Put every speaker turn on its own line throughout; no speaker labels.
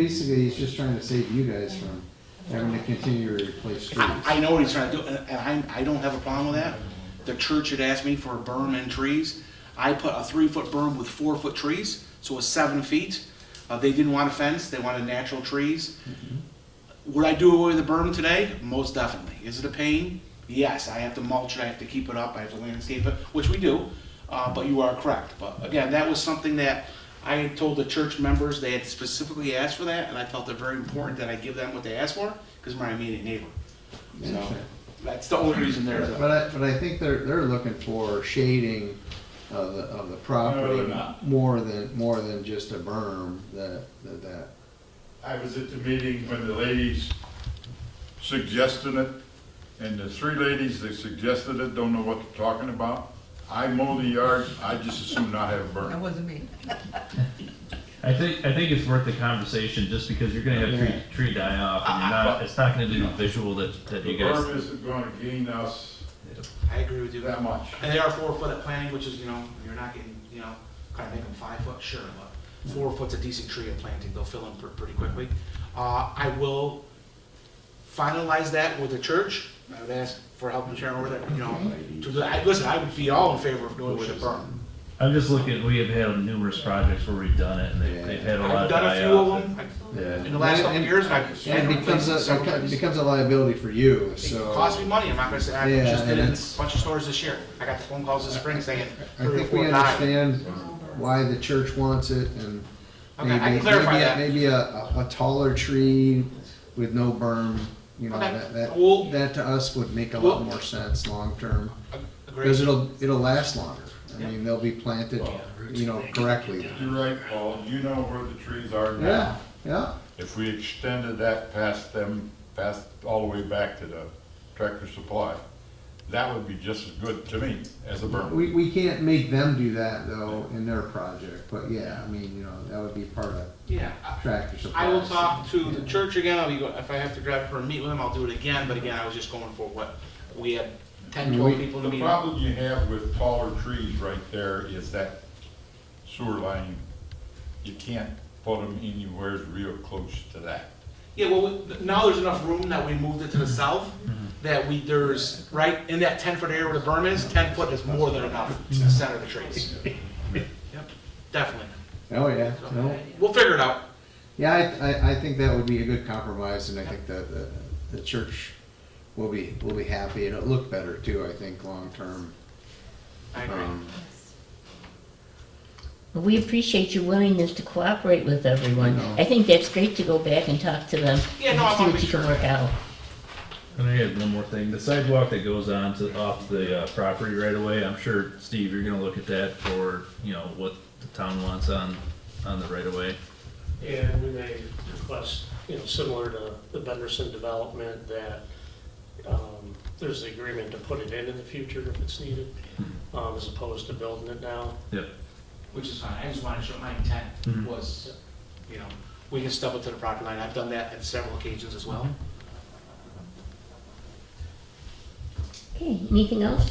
Basically, he's just trying to save you guys from having to continue to replace trees.
I, I know what he's trying to do, and and I, I don't have a problem with that. The church had asked me for a berm and trees. I put a three-foot berm with four-foot trees, so it was seven feet. Uh, they didn't want a fence, they wanted natural trees. Would I do away with the berm today? Most definitely. Is it a pain? Yes, I have to mulch it, I have to keep it up, I have to landscape it, which we do, uh, but you are correct. But again, that was something that I told the church members, they had specifically asked for that, and I felt it very important that I give them what they asked for, because my immediate neighbor. So, that's the only reason there's a.
But I, but I think they're, they're looking for shading of the, of the
they're
property
not.
more than, more than just a berm that, that- that.
I was at the meeting when the ladies suggested it, and the three ladies that suggested it don't know what they're talking about. I mow the yard, I just assume not have a
That
burn.
wasn't me.
I think I think it's worth the conversation just because you're gonna have tree, tree die off and you're
Uh,
not it's not gonna do the visual that, that
The
you guys
berm isn't gonna gain us
I agree with you.
that much.
And they are four foot at planting, which is, you know, you're not getting, you know, kind of make them five foot, sure, but four foot's a decent tree at planting, they'll fill in pr- pretty quickly. Uh, I will finalize that with the church, I would ask for help and sharing with it, you know, to, the- I, listen, I would be all in favor of doing with a berm.
I'm just looking we have had numerous projects where we've done it and they
Yeah.
they've had a lot
I've
of
done a
die
few
off.
of them, I- in the last couple of
And-
years, and I.
And it becomes a, it becomes a liability for you,
It
so.
cost me money, I'm not gonna say, I
Yeah,
just did
and
it in a
it's-
bunch of stores this year, I got the phone calls this spring saying
I
three or
think we
four died.
understand why the church wants it and
Okay, I can
maybe,
clarify
maybe a-
that.
maybe a, a taller tree with no berm, you know,
Okay,
that, that,
we'll-
that to us would make a
we'll-
lot more sense long-term.
Agreed.
Because it'll, it'll last longer. I
Yeah.
mean, they'll be planted, you know, correctly.
You're right, Paul, you know where the trees are
Yeah,
now.
yeah.
If we extended that past them, past, all the way back to the tractor supply, that would be just as good to me as a berm.
We, we can't make them do that though in their project, but yeah, I mean, you know, that would be part of
Yeah, I-
tractor supply.
I will talk to the church again, I'll be, go- if I have to grab her and meet with them, I'll do it again, but again, I was just going for what, we had ten,
Mm-hmm.
twelve people in the
The
meeting.
problem you have with taller trees right there is that sewer line, you can't put them anywhere real close to that.
Yeah, well, we- now there's enough room that we moved it to the
Mm-hmm.
south, that we, there's, right, in that ten foot area where the berm is, ten foot is more than enough to
Mm-hmm.
the center of the trees. Yep, definitely.
Oh, yeah,
So,
no.
We'll figure it out.
Yeah, I, I, I think that would be a good compromise and I think that the, the church will be, will be happy and it'll look better too, I think, long-term.
I agree.
Um,
Well, We appreciate your willingness to cooperate with everyone.
I know.
I think that's great to go back and talk to them.
Yeah, no, I
and See
wanna
what
make
you can
sure.
work out.
And I had one more thing. The sidewalk that goes on to off the uh, property right away, I'm sure Steve, you're gonna look at that for, you know, what the town wants on on the right away.
And we may request, you know, similar to the Benderson development, that um, there's the agreement to put it in in the future if it's needed, um, as opposed to building it now.
Yep.
Which is fine, I just wanted to show my intent
Mm-hmm.
Mhm.
was, you know, we can step up to the property line, I've done that on several occasions as well.
Okay, anything else?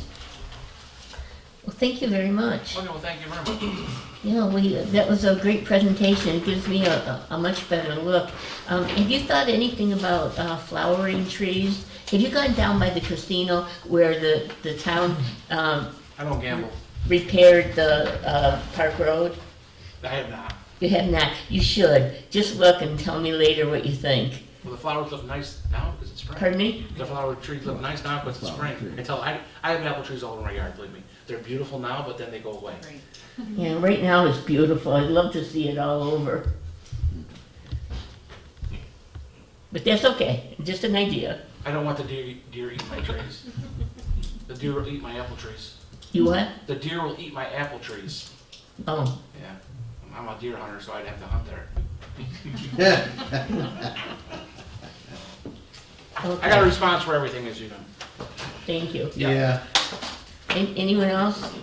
Well, thank you very much.
Okay, well, thank you very much.
You know, we, that was a great presentation. It gives me a, a- a much better look. Um, have you thought anything about uh, flowering trees? Have you gone down by the casino where the, the town um,
I don't gamble.
repaired the uh, Park Road?
I have not.
You have not. You should. Just look and tell me later what you think.
Well, the flowers look nice now because it's spring.
Pardon me?
The flower trees look nice now because it's spring.
tree.
Until I, I have apple trees all over my yard, believe me. They're beautiful now, but then they go away.
Yeah, right now it's beautiful. I'd love to see it all over. But that's okay, just an idea.
I don't want the deer, deer eat my trees. The deer will eat my apple trees.
You what?
The deer will eat my apple trees.
Oh,
Yeah. I'm a deer hunter, so I'd have to hunt there.
Yeah.
I got a
okay,
response for everything, as you know.
thank you.
Yeah.
Yeah.
An- Anyone else?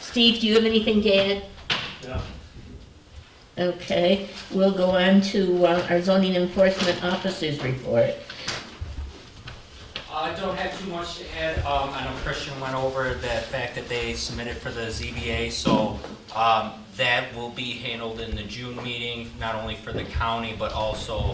Steve, do you have anything to add?
Yeah.
Okay, we'll go on to uh, our zoning enforcement officers report.
Uh,
I don't have too much to add. Um, I know Christian went over the fact that they submitted for the ZBA, so, um, that will be handled in the June meeting, not only for the county, but also